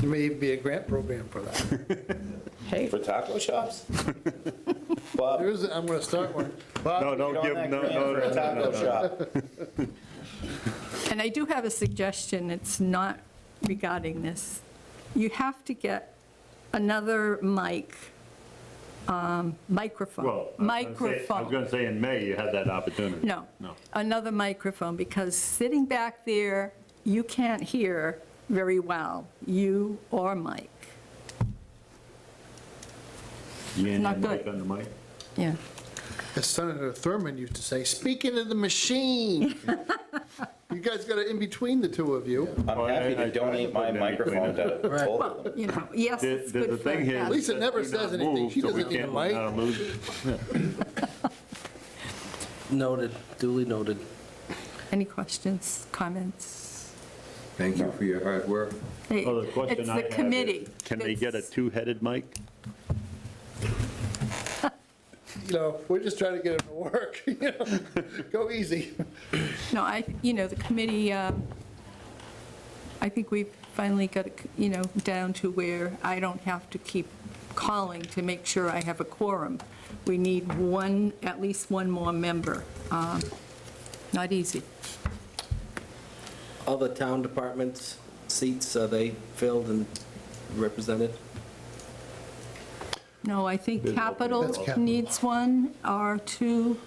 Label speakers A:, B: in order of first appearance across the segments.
A: There may even be a grant program for that.
B: Hey,
C: For taco shops? Bob,
A: There is, I'm gonna start one.
D: No,
A: Bob,
D: don't
C: get on that
D: give, no, no,
C: grant for
D: no,
C: a
D: no,
C: taco
D: no.
C: shop.
B: and I do have a suggestion, it's not regarding this. You have to get another mic, um, microphone,
D: Well, I was gonna say- I was
B: microphone.
D: going to say, in May, you had that opportunity.
B: No.
D: No.
B: Another microphone, because sitting back there, you can't hear very well, you or Mike.
D: You ain't
B: Not
D: had Mike
B: good.
D: on the mic?
B: Yeah.
A: as Senator Thurman used to say, speaking of the machine. You guys got it in between the two of you.
D: Well,
C: I'm happy
D: Oh, I- I
C: to
D: tried to
C: donate
D: put
C: my
D: them in between
C: microphone to both of them.
B: Well, you know, yes,
D: The-
B: it's
D: the-
B: good
D: the
B: for
D: thing here
B: us.
D: is
A: Lisa
D: that
A: never
D: we
A: says
D: not
A: anything.
D: move,
A: She
D: so we
A: doesn't need a
D: can't-
A: mic.
D: uh, lose-
E: Noted, duly noted.
B: Any questions, comments?
F: Thank you for your hard work.
B: Hey,
D: Well, the question I have
B: It's
D: is,
B: the committee.
D: Can they get a
B: that's-
D: two-headed mic?
A: You know, we're just trying to get it to work, you know? Go easy.
B: No, I, you know, the committee, um, I think we finally got, it, you know, down to where I don't have to keep calling to make sure I have a quorum. We need one, at least one more member. Um, Not easy.
E: All the town departments' seats, are they filled and represented?
B: No, I think capital
A: That's capital.
B: needs one or two,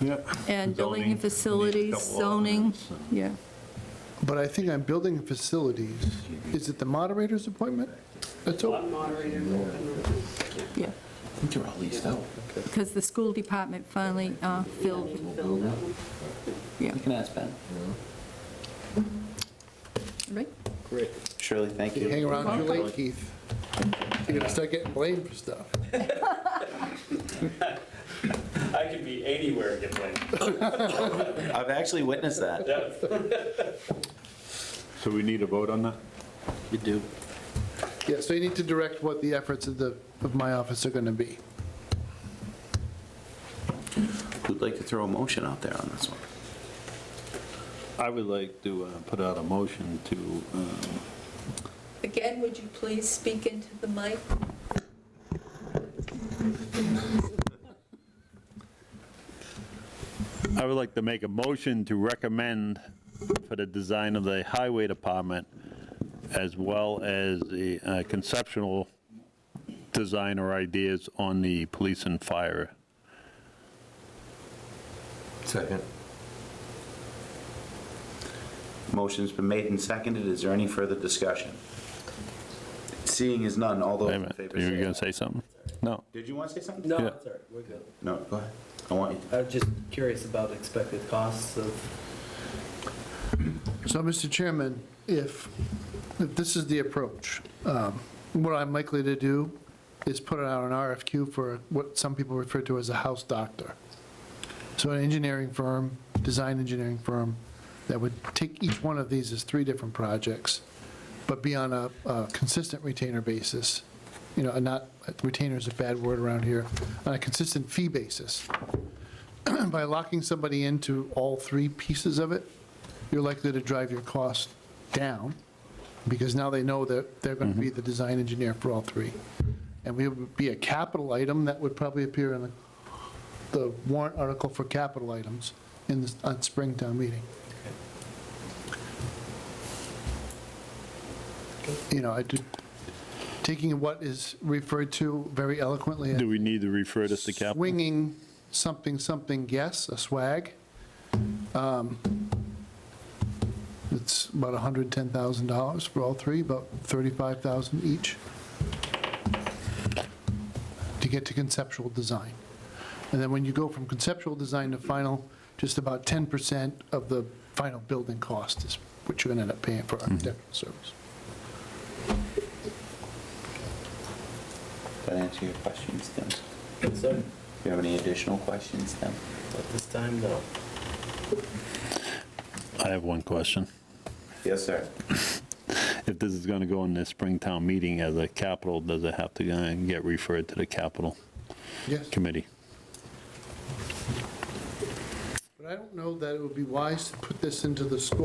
D: Yep.
B: and building
D: Zoning,
B: and facilities,
D: needs a couple of
B: zoning,
D: ordinance,
B: yeah.
A: But I think I'm building facilities. Is it the moderator's appointment? That's all.
G: moderator.
B: Yeah. Because the school department finally uh, filled, yeah,
H: You can ask Ben.
B: right?
E: Great.
C: Shirley, thank
A: You hang
C: you.
A: around too late, Keith. You're gonna start getting blamed for stuff.
I: I could be anywhere and get blamed.
C: I've actually witnessed that.
D: So we need a vote on that?
E: You do.
A: Yeah, so you need to direct what the efforts of the, of my office are gonna be.
C: Who'd like to throw a motion out there on this one?
D: I would like to uh, put out a motion to, um,
B: Again, would you please speak into the mic?
D: I would like to make a motion to recommend for the design of the highway department as well as the uh, conceptual design or ideas on the police and fire.
F: Second.
C: Motion's been made and seconded. Is there any further discussion? Seeing is none, all those
D: Wait a
C: in
D: minute,
C: favor
D: you were
C: say
D: going to
C: aye.
D: say something? No.
C: Did you want to say something?
E: No,
D: Yeah.
E: that's all right, we're good.
C: No, go ahead. I want you to.
E: I was just curious about expected costs of
A: So, Mr. Chairman, if, if this is the approach, um, what I'm likely to do is put out an RFQ for what some people refer to as a house doctor. So an engineering firm, design engineering firm, that would take each one of these as three different projects, but be on a a consistent retainer basis, you know, and not, retainer is a bad word around here, on a consistent fee basis. By locking somebody into all three pieces of it, you're likely to drive your costs down, because now they know that they're going to be the design engineer for all three. And we would be a capital item that would probably appear in the the warrant article for capital items in, the- on Springtown meeting. You know, I did, taking what is referred to very eloquently as
D: Do we need to refer this to capital?
A: swinging something, something, yes, a swag. Um, It's about $110,000 for all three, about 35,000 each to get to conceptual design. And then when you go from conceptual design to final, just about 10% of the final building cost is what you're going to end up paying for architectural service.
C: That answer your questions, Tim? Do
E: concern
C: you have any additional questions, Tim?
E: at this time, no.
D: I have one question.
C: Yes, sir.
D: If this is going to go in the Springtown meeting as a capital, does it have to uh, get referred to the capital
A: Yes?
D: committee?
A: But I don't know that it would be wise to put this into the score